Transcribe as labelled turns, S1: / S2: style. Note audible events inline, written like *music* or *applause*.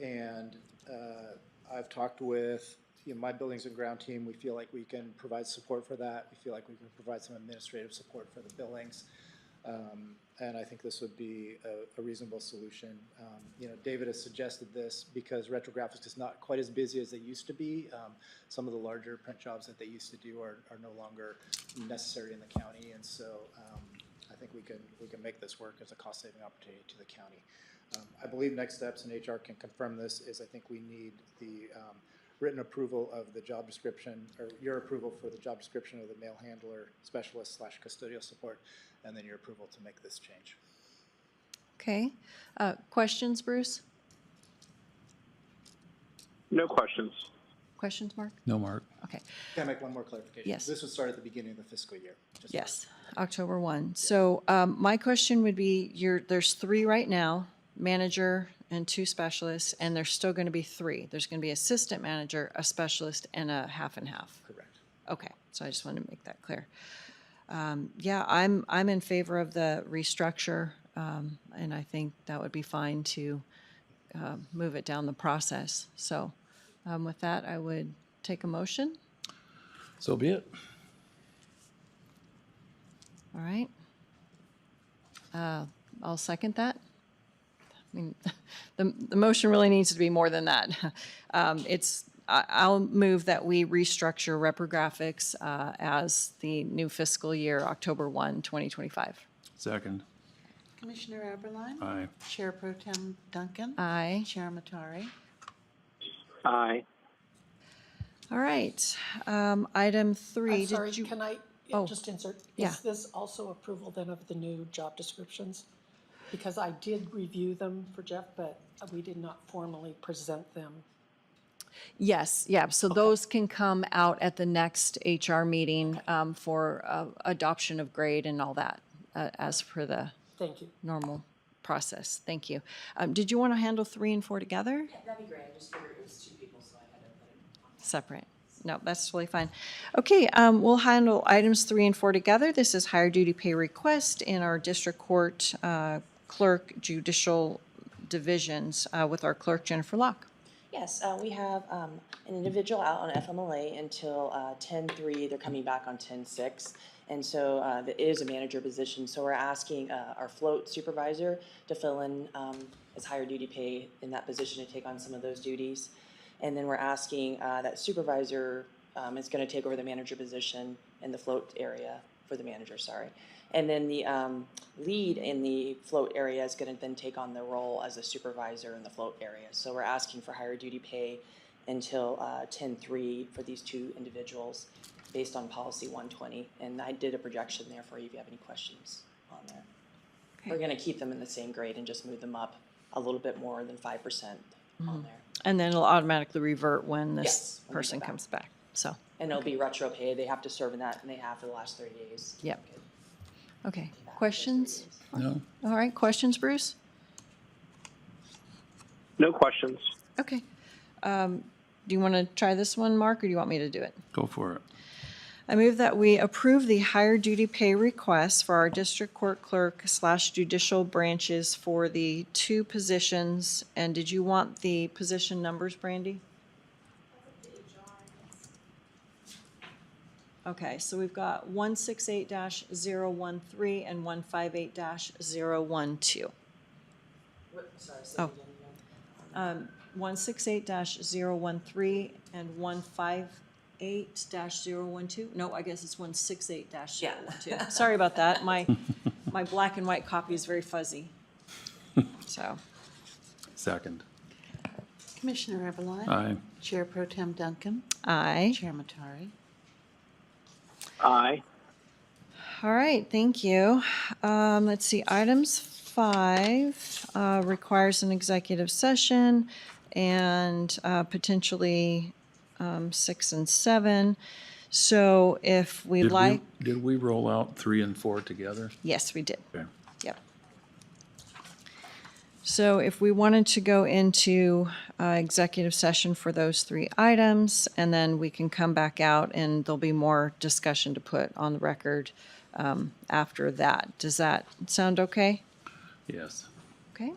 S1: And uh, I've talked with, you know, my buildings and ground team, we feel like we can provide support for that. We feel like we can provide some administrative support for the buildings. Um, And I think this would be a, a reasonable solution. Um, You know, David has suggested this because retrographics is not quite as busy as they used to be. Um, Some of the larger print jobs that they used to do are, are no longer necessary in the county. And so um, I think we can, we can make this work as a cost-saving opportunity to the county. Um, I believe next steps, and HR can confirm this, is I think we need the um, written approval of the job description, or your approval for the job description of the mail handler specialist slash custodial support, and then your approval to make this change.
S2: Okay. Uh, Questions, Bruce?
S3: No questions.
S2: Questions, Mark?
S4: No, Mark.
S2: Okay.
S1: Can I make one more clarification?
S2: Yes.
S1: This would start at the beginning of the fiscal year. just-
S2: Yes, October 1. So um, my question would be, you're, there's three right now, manager and two specialists, and there's still going to be three. There's going to be assistant manager, a specialist, and a half and half.
S1: Correct.
S2: Okay, so I just wanted to make that clear. Um, Yeah, I'm, I'm in favor of the restructure, um, and I think that would be fine to um, move it down the process. So um, with that, I would take a motion.
S4: So be it.
S2: All right. Uh, I'll second that. I mean, *laughs* the, the motion really needs to be more than that. *laughs* Um, It's, I, I'll move that we restructure reprographics uh, as the new fiscal year, October 1, 2025.
S4: Second.
S5: Commissioner Eberline.
S4: Aye.
S5: Chair Pro Tem Duncan.
S2: Aye.
S5: Chair Matari.
S3: Aye.
S2: All right. Um, Item
S6: I'm
S2: three. did
S6: sorry,
S2: you-
S6: can I
S2: Oh.
S6: just insert?
S2: Yeah.
S6: Is this also approval then of the new job descriptions? Because I did review them for Jeff, but we did not formally present them.
S2: Yes, yeah, so those can come out at the next HR meeting um, for uh, adoption of grade and all that, uh, as per the
S6: Thank you.
S2: normal process. Thank you. Um, did you want to handle three and four together?
S7: That'd be great, I just figured it was two people, so I had to put it.
S2: Separate? No, that's totally fine. Okay, um, we'll handle items three and four together. This is higher duty pay request in our district court uh, clerk judicial divisions uh, with our clerk Jennifer Locke.
S7: Yes, uh, we have, um, an individual out on FMLA until, uh, ten-three, they're coming back on ten-six. And so, uh, it is a manager position, so we're asking, uh, our float supervisor to fill in, um, as higher duty pay in that position to take on some of those duties. And then we're asking, uh, that supervisor, um, is gonna take over the manager position in the float area, for the manager, sorry. And then the, um, lead in the float area is gonna then take on the role as a supervisor in the float area. So we're asking for higher duty pay until, uh, ten-three for these two individuals based on policy one twenty. And I did a projection there for you if you have any questions on there. We're gonna keep them in the same grade and just move them up a little bit more than five percent on there.
S2: And then it'll automatically revert when this
S7: Yes, when we go
S2: person
S7: back.
S2: comes back. So,
S7: And it'll be retro pay, they have to serve in that, and they have for the last thirty days.
S2: Yep.
S7: Okay,
S2: okay,
S7: back for those 30
S2: questions?
S7: days.
S4: No.
S2: All right, questions, Bruce?
S3: No questions.
S2: Okay. Um, do you want to try this one, Mark, or do you want me to do it?
S4: Go for it.
S2: I move that we approve the higher duty pay request for our district court clerk slash judicial branches for the two positions. And did you want the position numbers, Brandy? Okay, so we've got one six eight dash zero one three and one five eight dash zero one two.
S7: What, sorry, say
S2: Oh.
S7: it again, you know.
S2: 168-013 and 158-012? No, I guess it's 168-012. *laughs* Sorry about that. My, my black and white copy is very fuzzy. So,
S4: Second.
S5: Commissioner Eberline.
S4: Aye.
S5: Chair Pro Tem Duncan.
S2: aye.
S5: Chair Matari.
S3: Aye.
S2: All right, thank you. Um, let's see, items five, uh, requires an executive session and, uh, potentially, um, six and seven. So if we
S4: Did we-
S2: like,
S4: Did we roll out three and four together?
S2: yes, we did.
S4: Okay.
S2: Yep. So if we wanted to go into uh, executive session for those three items, and then we can come back out and there'll be more discussion to put on the record um, after that. Does that sound okay?
S4: Yes.
S2: Okay,